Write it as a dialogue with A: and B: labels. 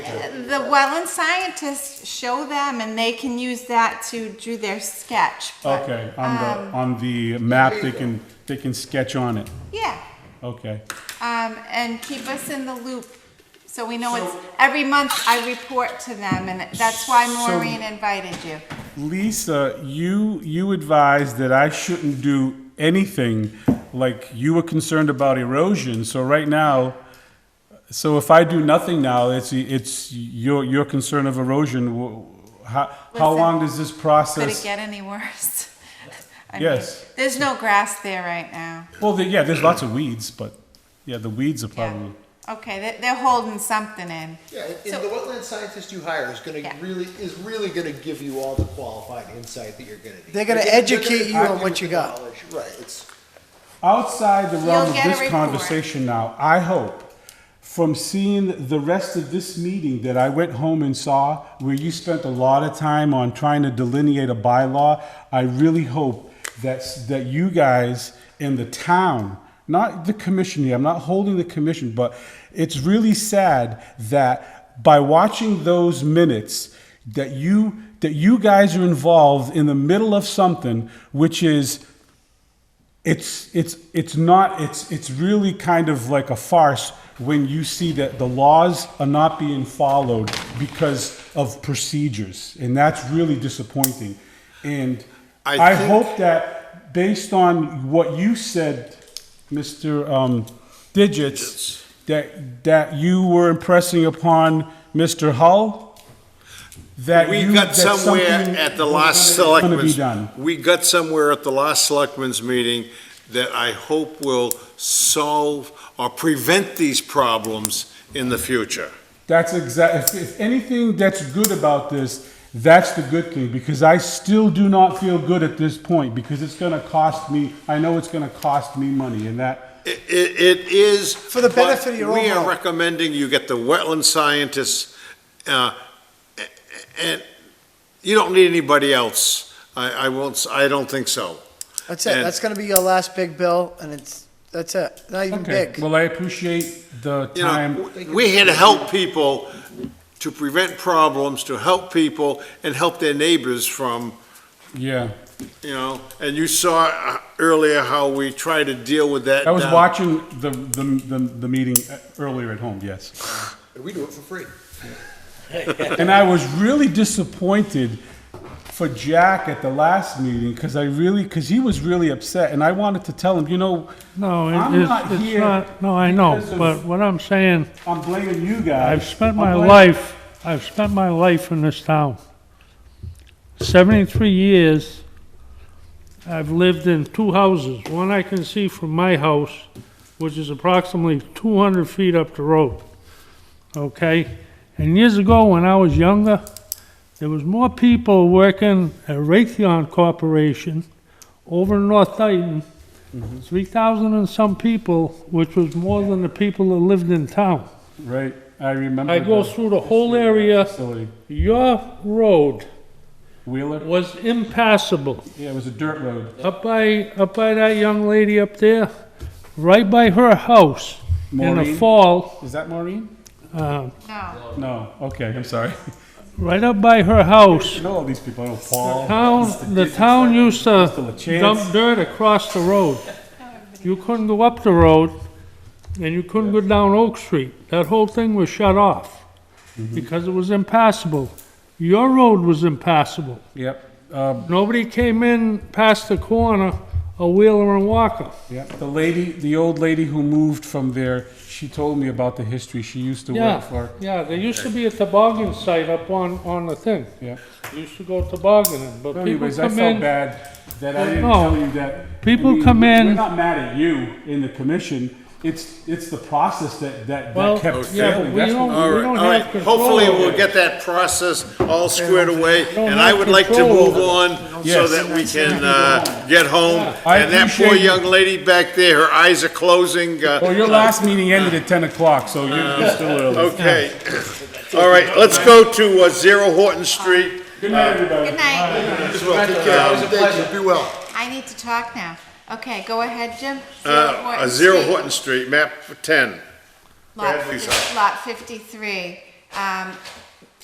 A: the wetland scientists show them and they can use that to do their sketch. but,
B: Okay, on
A: um,
B: the, on the map, they can, they can sketch on it,
A: Yeah,
B: okay.
A: um, and keep us in the loop, so we know it's,
B: So-
A: every month I report to them, and that's why
B: So-
A: Maureen invited you.
B: Lisa, you, you advised that I shouldn't do anything, like you were concerned about erosion, so right now, so if I do nothing now, it's, it's your, your concern of erosion, wh- how, how
A: Listen,
B: long does this
A: Could it
B: process?
A: get any worse? I mean,
B: Yes.
A: There's no grass there right now.
B: Well, the- yeah, there's lots of weeds, but, yeah, the weeds are
A: Yeah.
B: probably,
A: Okay, they- they're holding something in.
C: Yeah, and-
A: So-
C: and the wetland scientist you hire is gonna
A: Yeah.
C: really, is really gonna give you all the qualified insight that you're gonna need.
D: They're gonna
C: You're they're
D: educate
C: gonna
D: you on
C: argue
D: what
C: with
D: you
C: the
D: got.
C: knowledge. Right, it's,
B: outside the realm
A: You'll
B: of
A: get a
B: this
A: report.
B: conversation now, I hope, from seeing the rest of this meeting that I went home and saw, where you spent a lot of time on trying to delineate a bylaw, I really hope that's, that you guys and the town, not the commission here, I'm not holding the commission, but it's really sad that by watching those minutes, that you, that you guys are involved in the middle of something, which is it's it's it's not it's it's really kind of like a farce when you see that the laws are not being followed because of procedures and that's really disappointing and i,
E: I think-
B: hope that based on what you said mr um, digits that that you were impressing upon mr hull that
E: We
B: you,
E: got
B: that
E: somewhere
B: something
E: at the
B: was
E: last
B: gonna- gonna be
E: selectmen's,
B: done.
E: we got somewhere at the last selectmen's meeting that I hope will solve or prevent these problems in the future.
B: That's exact. If, if anything that's good about this, that's the good thing because I still do not feel good at this point because it's going to cost me. I know it's going to cost me money, and that
E: It, it is. For
D: the benefit of your
E: We are
D: overall.
E: recommending you get the wetland scientists, uh, a- a- and you don't need anybody else. I, I won't, s- I don't think so.
D: That's it.
E: And-
D: That's gonna be your last big bill, and it's, that's it. Not even big.
B: Well, I appreciate the
E: You
B: time.
E: know, we're here to help people, to prevent problems, to help people, and help their neighbors from,
B: yeah,
E: you know, and you saw uh, earlier how we try to deal with that.
B: I was
E: down-
B: watching the the, the the meeting uh, earlier at home. Yes,
C: and we do it for free.
B: and I was really disappointed for Jack at the last meeting because I really because he was really upset, and I wanted to tell him, you know,
F: No, it-
B: I'm
F: it's,
B: not
F: it's
B: here
F: not, no, I know,
B: because of-
F: but what I'm saying,
B: I'm blaming you guys.
F: I've spent
B: I'm
F: my
B: blaming-
F: life, I've spent my life in this town. Seventy-three years, I've lived in two houses, one I can see from my house, which is approximately two hundred feet up the road. Okay, and years ago, when I was younger, there was more people working at Raytheon Corporation over in North Dayton, three thousand and some people, which was more than the people that lived in town.
B: Right, I remember.
F: I go
B: that
F: through the whole area,
B: Facility.
F: your road
B: Wheeler?
F: was impassable.
B: Yeah, it was a dirt road.
F: Up by, up by that young lady up there, right by her house, in the
B: Maureen?
F: fall,
B: Is that Maureen?
F: uh,
A: No,
B: No, okay, I'm sorry.
F: right up by her house,
B: I know all these people, I know Paul.
F: town, the town used to
B: Still a chance.
F: dump dirt across the road. You couldn't go up the road, and you couldn't go down Oak Street. That whole thing was shut off,
B: Mm-hmm.
F: because it was impassable. Your road was impassable.
B: Yep, um,
F: Nobody came in past the corner of Wheeler and Walker.
B: yep. The lady, the old lady who moved from there, she told me about the history. She used to work
F: Yeah,
B: for,
F: yeah, there used to be a toboggan site up on, on the thing.
B: yeah.
F: Used to go tobogganing, but
B: So
F: people
B: Anyways, I
F: come
B: felt
F: in.
B: bad that I didn't
F: No.
B: tell you that.
F: People
B: I mean,
F: come in-
B: We're not mad at you in the commission. It's, it's the process that, that,
F: Well,
B: that kept
F: yeah, but
B: failing.
F: we
B: That's what-
F: don't,
E: All
F: we
E: right,
F: don't
E: all right.
F: have control.
E: Hopefully,
F: over
E: we'll
F: it.
E: get that process all squared away,
F: don't
E: and I
F: have
E: would like to
F: control
E: move
F: over it.
E: on so
B: Yes.
E: that we can, uh, get home.
B: I
E: And that poor
B: appreciate-
E: young lady back there, her eyes are closing. uh,
B: Well, your last meeting ended at ten o'clock, so you're you're still early.
E: Okay. All right, let's go to, uh, Zero Horton Street.
B: Good night, everybody.
A: good night,
C: Thank
E: Um,
C: you, be well.
A: I need to talk now. Okay, go ahead, Jim. Zero
E: Uh,
A: Horton
E: Zero
A: Street,
E: Horton Street, map ten.
A: Lot
E: Bradley's
A: fif- lot fifty-three. Um,